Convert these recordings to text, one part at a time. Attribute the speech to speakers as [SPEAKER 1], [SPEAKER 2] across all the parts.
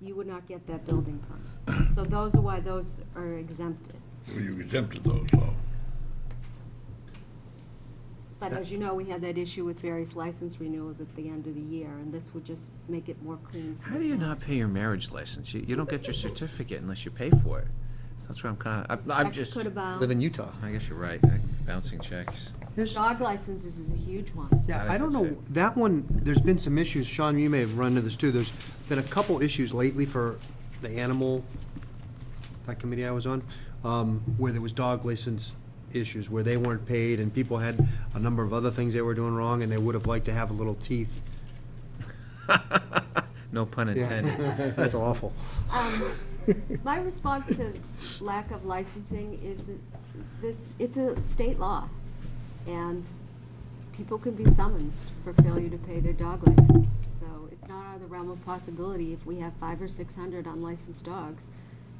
[SPEAKER 1] you would not get that building permit. So those are why those are exempted.
[SPEAKER 2] Well, You exempted those, so.
[SPEAKER 1] But as you know, we had that issue with various license renewals at the end of the year, and this would just make it more clean. for
[SPEAKER 3] How
[SPEAKER 1] the
[SPEAKER 3] do you
[SPEAKER 1] town.
[SPEAKER 3] not pay your marriage license? You, you don't get your certificate unless you pay for it. That's where I'm kinda, I'm- I'm
[SPEAKER 1] Check
[SPEAKER 3] just, Oh,
[SPEAKER 1] Could
[SPEAKER 3] I
[SPEAKER 1] about,
[SPEAKER 4] live in Utah.
[SPEAKER 3] guess you're right, I- bouncing checks.
[SPEAKER 4] Here's-
[SPEAKER 1] dog licenses is a huge one.
[SPEAKER 4] Yeah,
[SPEAKER 3] I
[SPEAKER 4] I don't
[SPEAKER 3] think
[SPEAKER 4] know,
[SPEAKER 3] that's
[SPEAKER 4] that one, there's been some issues, Sean, you may have run into this too, there's been a couple issues lately for the animal, that committee I was on, um, where there was dog license issues, where they weren't paid, and people had a number of other things they were doing wrong, and they would have liked to have a little teeth.
[SPEAKER 3] No pun intended.
[SPEAKER 4] Yeah, that's awful.
[SPEAKER 1] Um, My response to lack of licensing is that this, it's a state law, and people can be summoned for failure to pay their dog license. So it's not out of the realm of possibility, if we have five or six hundred unlicensed dogs,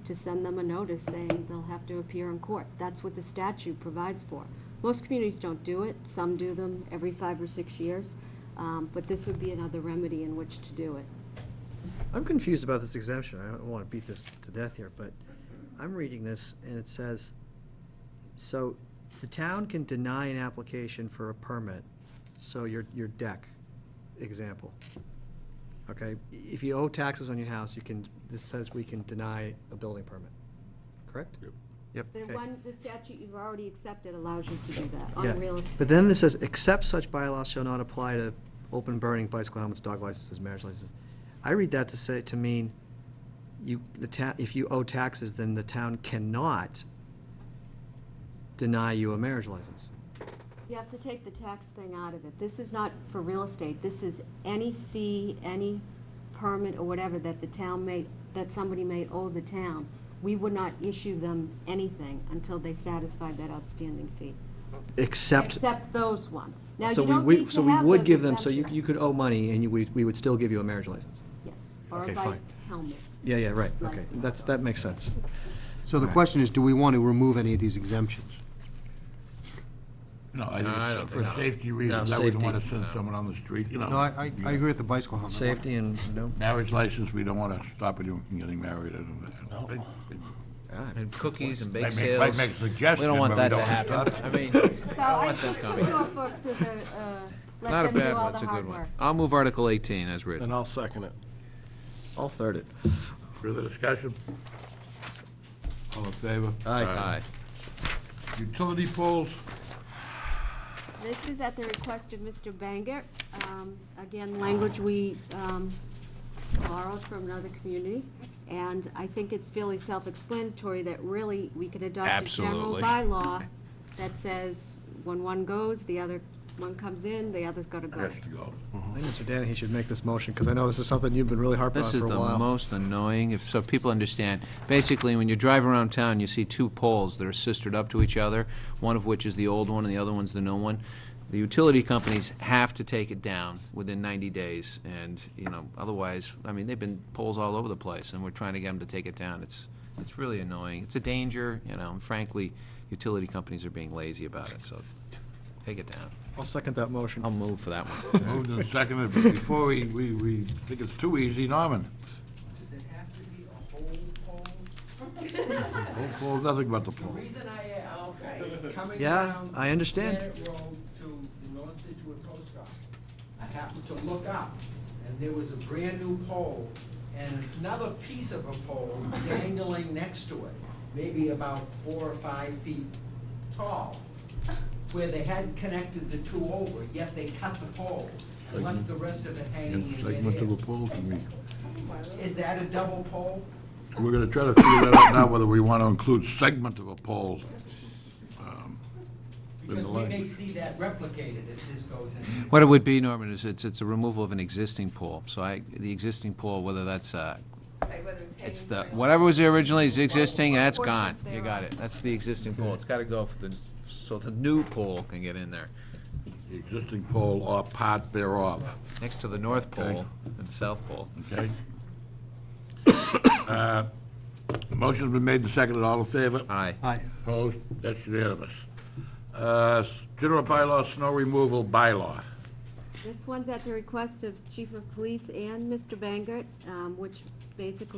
[SPEAKER 1] to send them a notice saying they'll have to appear in court. That's what the statute provides for. Most communities don't do it, some do them every five or six years, um, but this would be another remedy in which to do it.
[SPEAKER 5] I'm confused about this exemption. I don't want to beat this to death here, but I'm reading this and it says, so the town can deny an application for a permit, so your, your deck, example. Okay, if you owe taxes on your house, you can, this says we can deny a building permit, correct?
[SPEAKER 3] Yep.
[SPEAKER 1] The
[SPEAKER 5] Okay.
[SPEAKER 1] one, the statute you've already accepted allows you to do that
[SPEAKER 5] Yeah.
[SPEAKER 1] on real estate.
[SPEAKER 5] But then this says, except such bylaws shall not apply to open burning, bicycle helmets, dog licenses, marriage licenses. I read that to say, to mean, you, the town, if you owe taxes, then the town cannot deny you a marriage license.
[SPEAKER 1] You have to take the tax thing out of it. This is not for real estate. This is any fee, any permit or whatever that the town may, that somebody may owe the town. We would not issue them anything until they satisfied that outstanding fee.
[SPEAKER 5] Except,
[SPEAKER 1] Except those ones. Now, you
[SPEAKER 5] so we,
[SPEAKER 1] don't
[SPEAKER 5] we,
[SPEAKER 1] need
[SPEAKER 5] so
[SPEAKER 1] to
[SPEAKER 5] we
[SPEAKER 1] have
[SPEAKER 5] would
[SPEAKER 1] those
[SPEAKER 5] give them, so you,
[SPEAKER 1] exemptions.
[SPEAKER 5] you could owe money and you, we, we would still give you a marriage license.
[SPEAKER 1] Yes, or a
[SPEAKER 5] Okay,
[SPEAKER 1] bike
[SPEAKER 5] fine.
[SPEAKER 1] helmet.
[SPEAKER 5] Yeah, yeah, right, okay,
[SPEAKER 1] License.
[SPEAKER 5] that's, that makes sense.
[SPEAKER 4] So the question is, do we want to remove any of these exemptions?
[SPEAKER 2] No, I
[SPEAKER 3] No, I
[SPEAKER 2] think
[SPEAKER 3] don't
[SPEAKER 2] it's for
[SPEAKER 3] think so.
[SPEAKER 2] safety reasons,
[SPEAKER 5] No,
[SPEAKER 2] I wouldn't want to
[SPEAKER 5] safety.
[SPEAKER 2] send someone on the street, you know.
[SPEAKER 4] No, I, I I agree with the bicycle helmet.
[SPEAKER 5] Safety and, no,
[SPEAKER 2] Marriage license, we don't want to stop anyone from getting married. No.
[SPEAKER 5] ah,
[SPEAKER 3] And cookies and bake
[SPEAKER 2] Might make- might
[SPEAKER 3] sales.
[SPEAKER 2] make a suggestion,
[SPEAKER 3] We don't want
[SPEAKER 2] but we
[SPEAKER 3] that to
[SPEAKER 2] don't want
[SPEAKER 3] happen.
[SPEAKER 2] to
[SPEAKER 3] I
[SPEAKER 2] stop
[SPEAKER 3] mean,
[SPEAKER 1] So I
[SPEAKER 3] them
[SPEAKER 1] think
[SPEAKER 3] coming.
[SPEAKER 1] Norfolk is a, uh,
[SPEAKER 3] not a
[SPEAKER 1] let them do
[SPEAKER 3] bad
[SPEAKER 1] all
[SPEAKER 3] one,
[SPEAKER 1] the
[SPEAKER 3] it's a good
[SPEAKER 1] hard
[SPEAKER 3] one.
[SPEAKER 1] work.
[SPEAKER 3] I'll move Article 18 as written.
[SPEAKER 6] And I'll second it.
[SPEAKER 5] I'll third it.
[SPEAKER 2] Further discussion? All in favor?
[SPEAKER 3] Aye.
[SPEAKER 2] Utility poles,
[SPEAKER 1] This is at the request of Mr. Bangert. Um, Again, language we um, borrowed from another community. And I think it's fairly self-explanatory that really we could adopt a general
[SPEAKER 3] Absolutely.
[SPEAKER 1] bylaw that says when one goes, the other, one comes in, the other's got to go.
[SPEAKER 2] has to go.
[SPEAKER 5] I think Mr. Danahy should make this motion, because I know this is something you've been really harping on
[SPEAKER 3] This
[SPEAKER 5] for a
[SPEAKER 3] is the
[SPEAKER 5] while.
[SPEAKER 3] most annoying, if, so people understand. Basically, when you drive around town, you see two poles that are sistered up to each other, one of which is the old one and the other one's the new one. The utility companies have to take it down within 90 days, and, you know, otherwise, I mean, they've been poles all over the place, and we're trying to get them to take it down. It's, it's really annoying. It's a danger, you know, and frankly, utility companies are being lazy about it, so take it down.
[SPEAKER 5] I'll second that motion.
[SPEAKER 3] I'll move for that one.
[SPEAKER 2] Moved and seconded, but before we, we, we think it's too easy, Norman.
[SPEAKER 7] Does it have to be a whole pole?
[SPEAKER 2] Pole, pole, nothing but the pole.
[SPEAKER 7] Reason I, uh, okay, is coming
[SPEAKER 5] Yeah,
[SPEAKER 7] down.
[SPEAKER 5] I understand.
[SPEAKER 7] Granite Road to the North Situate Post Office. I happened to look up, and there was a brand-new pole and another piece of a pole dangling next to it, maybe about four or five feet tall, where they hadn't connected the two over, yet they cut the pole and left the rest of it hanging
[SPEAKER 2] It's like
[SPEAKER 7] in
[SPEAKER 2] much of a
[SPEAKER 7] midair.
[SPEAKER 2] pole to me.
[SPEAKER 7] Is that a double pole?
[SPEAKER 2] We're gonna try to figure that out now, whether we want to include segment of a pole. um, in the
[SPEAKER 7] Because we may
[SPEAKER 2] language.
[SPEAKER 7] see that replicated if this goes in.
[SPEAKER 3] What it would be, Norman, is it's, it's a removal of an existing pool. So I, the existing pool, whether that's, uh,
[SPEAKER 8] Like whether it's hanging.
[SPEAKER 3] it's the,
[SPEAKER 8] from-
[SPEAKER 3] whatever was there originally is existing, and that's gone.
[SPEAKER 1] Portions
[SPEAKER 3] You got it. That's the existing pool. It's gotta go for the, so the new pool can get in there.
[SPEAKER 2] The Existing pole or part thereof,
[SPEAKER 3] Next to the north
[SPEAKER 2] Okay.
[SPEAKER 3] pole and south pole.
[SPEAKER 2] okay? Uh, Motion's been made and seconded, all in favor?
[SPEAKER 3] Aye.
[SPEAKER 4] Aye.
[SPEAKER 2] Opposed? That's unanimous. Uh, s- General bylaw, snow removal bylaw.
[SPEAKER 1] This one's at the request of Chief of Police and Mr. Bangert, um, which basically